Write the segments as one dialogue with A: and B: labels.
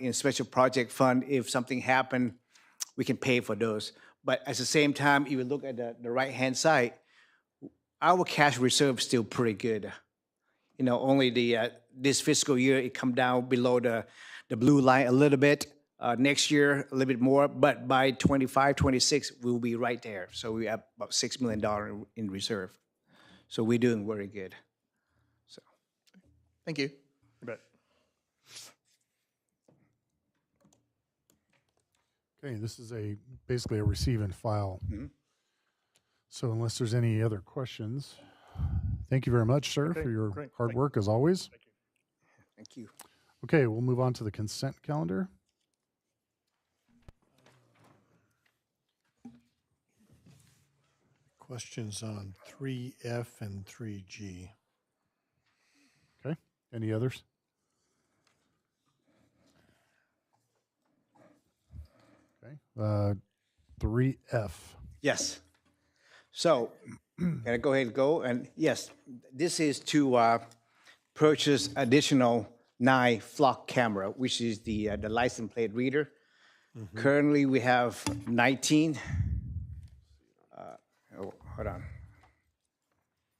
A: in special project fund, if something happened, we can pay for those. But at the same time, if you look at the, the right-hand side, our cash reserve is still pretty good. You know, only the, uh, this fiscal year, it come down below the, the blue line a little bit. Uh, next year, a little bit more, but by 25, 26, we'll be right there. So we have about $6 million in- in reserve. So we're doing very good.
B: Thank you.
C: You bet.
D: Okay, this is a, basically a receive and file.
C: Mm-hmm.
D: So unless there's any other questions, thank you very much, sir,
C: Okay,
D: for your
C: great.
D: hard
C: Thank-
D: work as always.
A: Thank you.
D: Okay, we'll move on to the consent calendar.
E: Questions on 3F and 3G.
D: Okay, any others? Okay, uh, 3F.
A: Yes. So, can I go ahead and go? And yes, this is to uh, purchase additional nine flock camera, which is the, uh, the license plate reader. Currently, we have 19. Uh, oh, Hold on.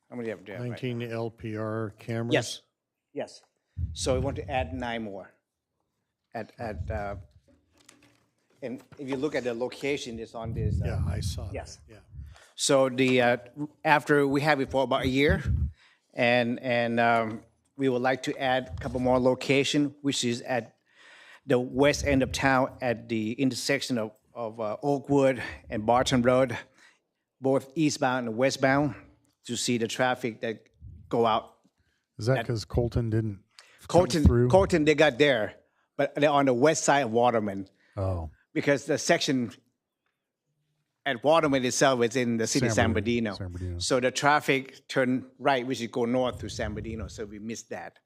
A: How many have we have? right?
E: 19 LPR cameras?
A: Yes, yes. So we want to add nine more. At, at, uh, and if you look at the location, it's on this. uh,
E: Yeah, I saw that.
A: Yes.
E: Yeah.
A: So the, uh, after, we have it for about a year, and, and um, we would like to add a couple more location, which is at the west end of town at the intersection of, of uh, Oakwood and Barton Road, both eastbound and westbound, to see the traffic that go out
D: Is that because Colton didn't?
A: Colton,
D: through.
A: Colton, they got there, but they're on the west side of Waterman
D: Oh,
A: because the section at Waterman itself is in the city of San
D: San
A: Bernardino.
D: Bernardino, San Bernardino.
A: So the traffic turned right, we should go north through San Bernardino, so we missed that.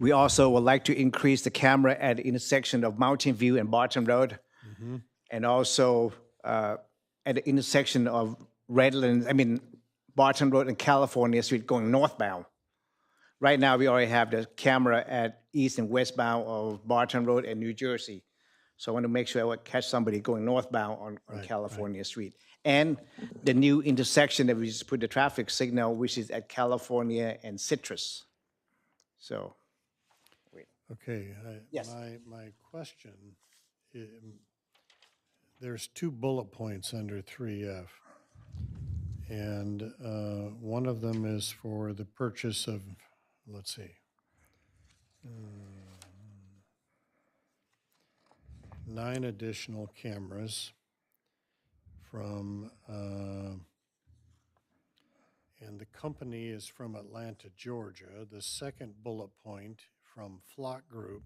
A: We also would like to increase the camera at the intersection of Mountain View and Barton Road. And also uh, at the intersection of Redlands, I mean, Barton Road and California Street going northbound. Right now, we already have the camera at east and westbound of Barton Road and New Jersey. So I want to make sure I would catch somebody going northbound on, on California Street. And the new intersection that we just put the traffic signal, which is at California and Citrus. So,
E: Okay. I-
A: Yes.
E: My, my question, um, there's two bullet points under 3F. And uh, one of them is for the purchase of, let's see. Mm, Nine additional cameras from, uh, and the company is from Atlanta, Georgia. The second bullet point from Flock Group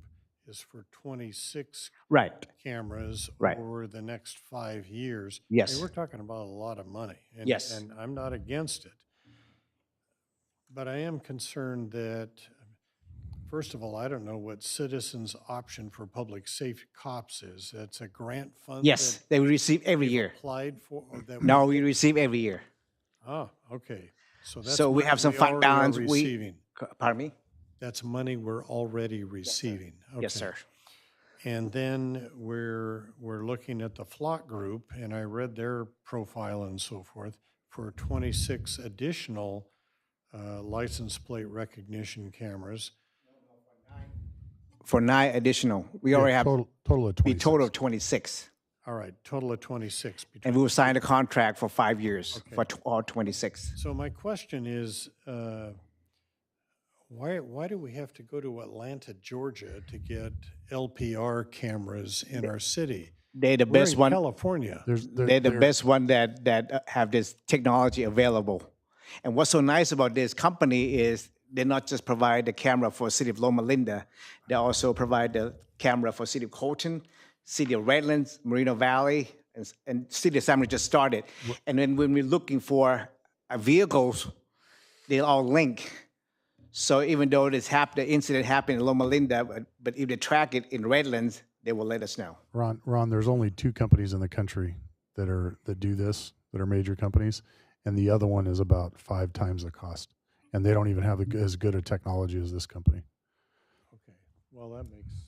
E: is for 26
A: right,
E: cameras
A: Right.
E: over the next five years. I mean,
A: Yes.
E: We're talking about a lot of money. and-
A: Yes.
E: And I'm not against it. But I am concerned that, first of all, I don't know what Citizens Option for Public Safety Cops is. That's a grant fund?
A: yes,
E: that
A: they receive every year.
E: Applied for? or that we-
A: No, we receive every year.
E: Ah, okay. So that's.
A: So we
E: money
A: have some fund
E: already are
A: balance. We-
E: receiving.
A: C- Pardon me?
E: That's money we're already receiving.
A: Yes,
E: Okay.
A: sir.
E: And then we're, we're looking at the Flock Group, and I read their profile and so forth, for 26 additional uh, license plate recognition cameras.
A: For nine additional, we already have
D: total, total of
A: the
D: 26.
A: total of 26.
E: All right, total of 26. between-
A: And we will sign a contract for five years for tw- all 26.
E: So my question is, uh, why, why do we have to go to Atlanta, Georgia to get LPR cameras in our city?
A: They're the
E: We're
A: best
E: in
A: one.
E: California.
D: There's, there-
A: They're the
D: there-
A: best one that that uh, have this technology available. And what's so nice about this company is they not just provide the camera for city of Loma Linda, they also provide the camera for city of Colton, city of Redlands, Merino Valley, and, s- and city of San Maria just started. And then when we're looking for uh, vehicles, they all link. So even though this hap- the incident happened in Loma Linda, but, but if they track it in Redlands, they will let us know.
D: Ron, Ron, there's only two companies in the country that are that do this that are major companies, and the other one is about five times the cost, and they don't even have a g as good a technology as this company.
E: Okay, well, that makes